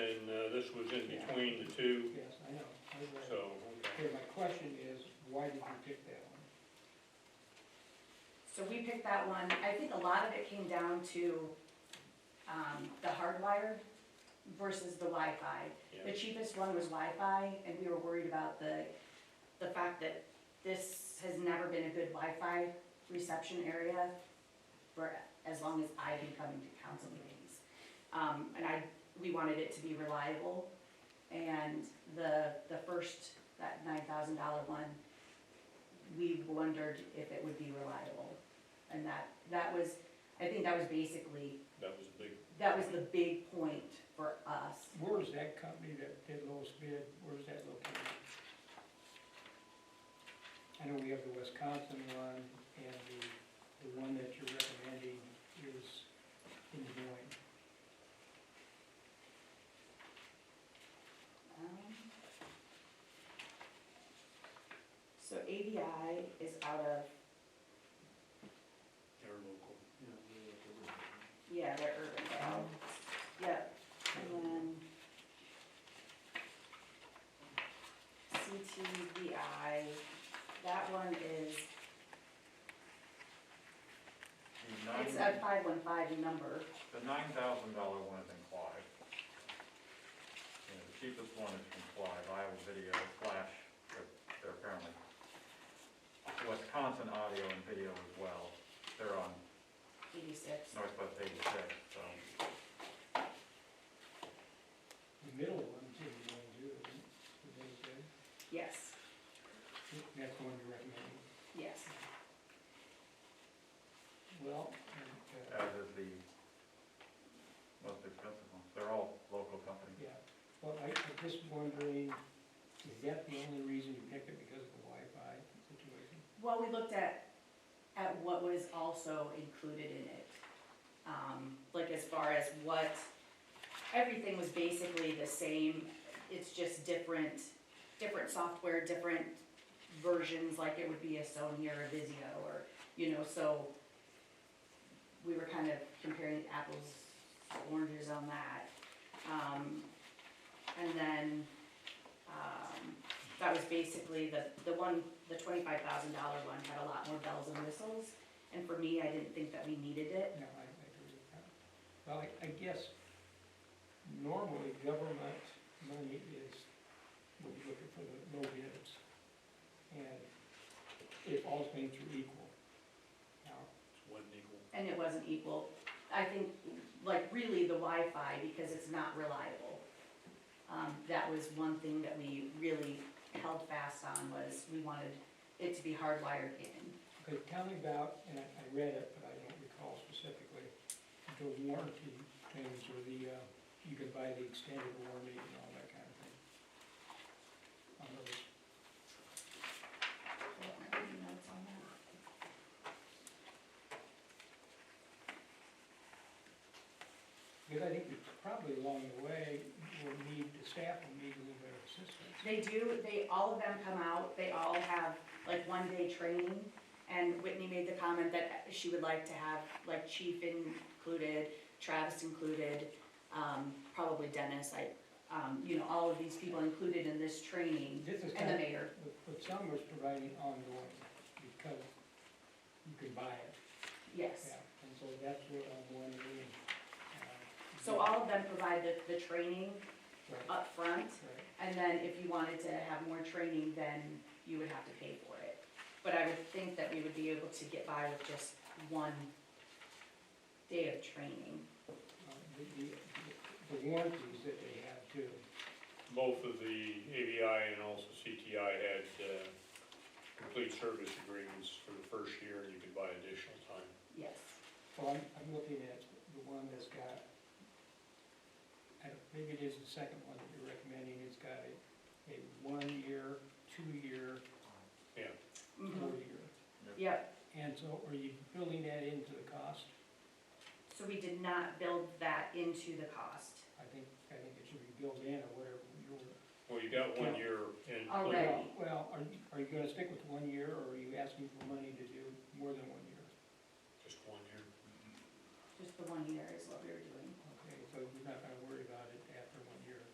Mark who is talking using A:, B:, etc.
A: uh, this was in between the two,
B: Yes, I know, I read it.
A: so, okay.
B: Okay, my question is, why did you pick that one?
C: So we picked that one, I think a lot of it came down to, um, the hardwired versus the Wi-Fi. The
A: yeah.
C: cheapest one was Wi-Fi, and we were worried about the, the fact that this has never been a good Wi-Fi reception area for as long as I've been coming to council meetings. Um, and I, we wanted it to be reliable, and the, the first, that nine thousand dollar one, we wondered if it would be reliable. And that, that was, I think that was basically,
A: that was a big,
C: that was the big point for us.
B: Where is that company that did lowest bid, where is that located? I know we have the Wisconsin one, and the, the one that you're recommending is in Des Moines.
C: Um, So ABI is out of,
A: they're local.
C: yeah, they're urban, Vale. yep, and then CTVI, that one is,
D: The
C: it's a
D: nine,
C: five one five number,
D: the nine thousand dollar one is in Clive. And the cheapest one is from Clive, Iowa Video, Flash, they're- they're apparently, Wisconsin Audio and Video as well. They're on
C: eighty-six.
D: Northwest eighty-six, so.
B: The middle one's in Des Moines too, isn't it? Is that what you
C: Yes,
B: said? That's the one you're recommending.
C: yes.
B: Well, and, uh,
D: As is the most expensive one. They're all local companies.
B: yeah, well, I, I'm just wondering, is that the only reason you picked it, because of the Wi-Fi situation?
C: Well, we looked at, at what was also included in it. Um, like as far as what, everything was basically the same, it's just different, different software, different versions, like it would be a Sony or a Vizio or, you know, so we were kind of comparing apples, to oranges on that. Um, and then, um, that was basically the, the one, the twenty-five thousand dollar one had a lot more bells and whistles. And for me, I didn't think that we needed it.
B: No, I, I agree with that. Well, I, I guess normally government money is, we're looking for the low bids. And if all things are equal. Now,
A: It's one equal.
C: And it wasn't equal. I think, like, really the Wi-Fi because it's not reliable. Um, that was one thing that we really held fast on was we wanted it to be hardwired in.
B: okay, tell me about, and I, I read it, but I don't recall specifically, the warranty things or the, uh, you can buy the extended warranty and all that kind of thing. On those.
C: I don't have any notes on that.
B: Because I think we probably along the way will need, the staff will need a little bit of assistance.
C: They do, they, all of them come out, they all have like one day training. And Whitney made the comment that she would like to have like Chief included, Travis included, um, probably Dennis, I, um, you know, all of these people included in this training.
B: This is
C: And the
B: kind of,
C: mayor,
B: but- but some was providing ongoing, because you could buy it,
C: yes.
B: yeah, and so that's what I'm wondering. uh,
C: So all of them provide the, the training
B: Right, right.
C: up front, and then if you wanted to have more training, then you would have to pay for it. But I would think that we would be able to get by with just one day of training.
B: Uh, The, the- the warranties that they have too,
A: Both of the ABI and also CTI had uh, complete service agreements for the first year, and you could buy additional time.
C: Yes,
B: so I'm, I'm looking at the one that's got, I don't, maybe it is the second one that you're recommending, it's got a, a one-year, two-year,
C: Mhm.
B: four-year.
C: yep.
B: And so are you building that into the cost?
C: So we did not build that into the cost.
B: I think, I think it should be built in or whatever your
A: Well, you got one year in.
C: Already.
A: included.
B: Well, are, you- are you gonna stick with one year, or are you asking for money to do more than one year?
A: Just one year.
C: Just the one year is what we were doing.
B: Okay, so you're not gonna worry about it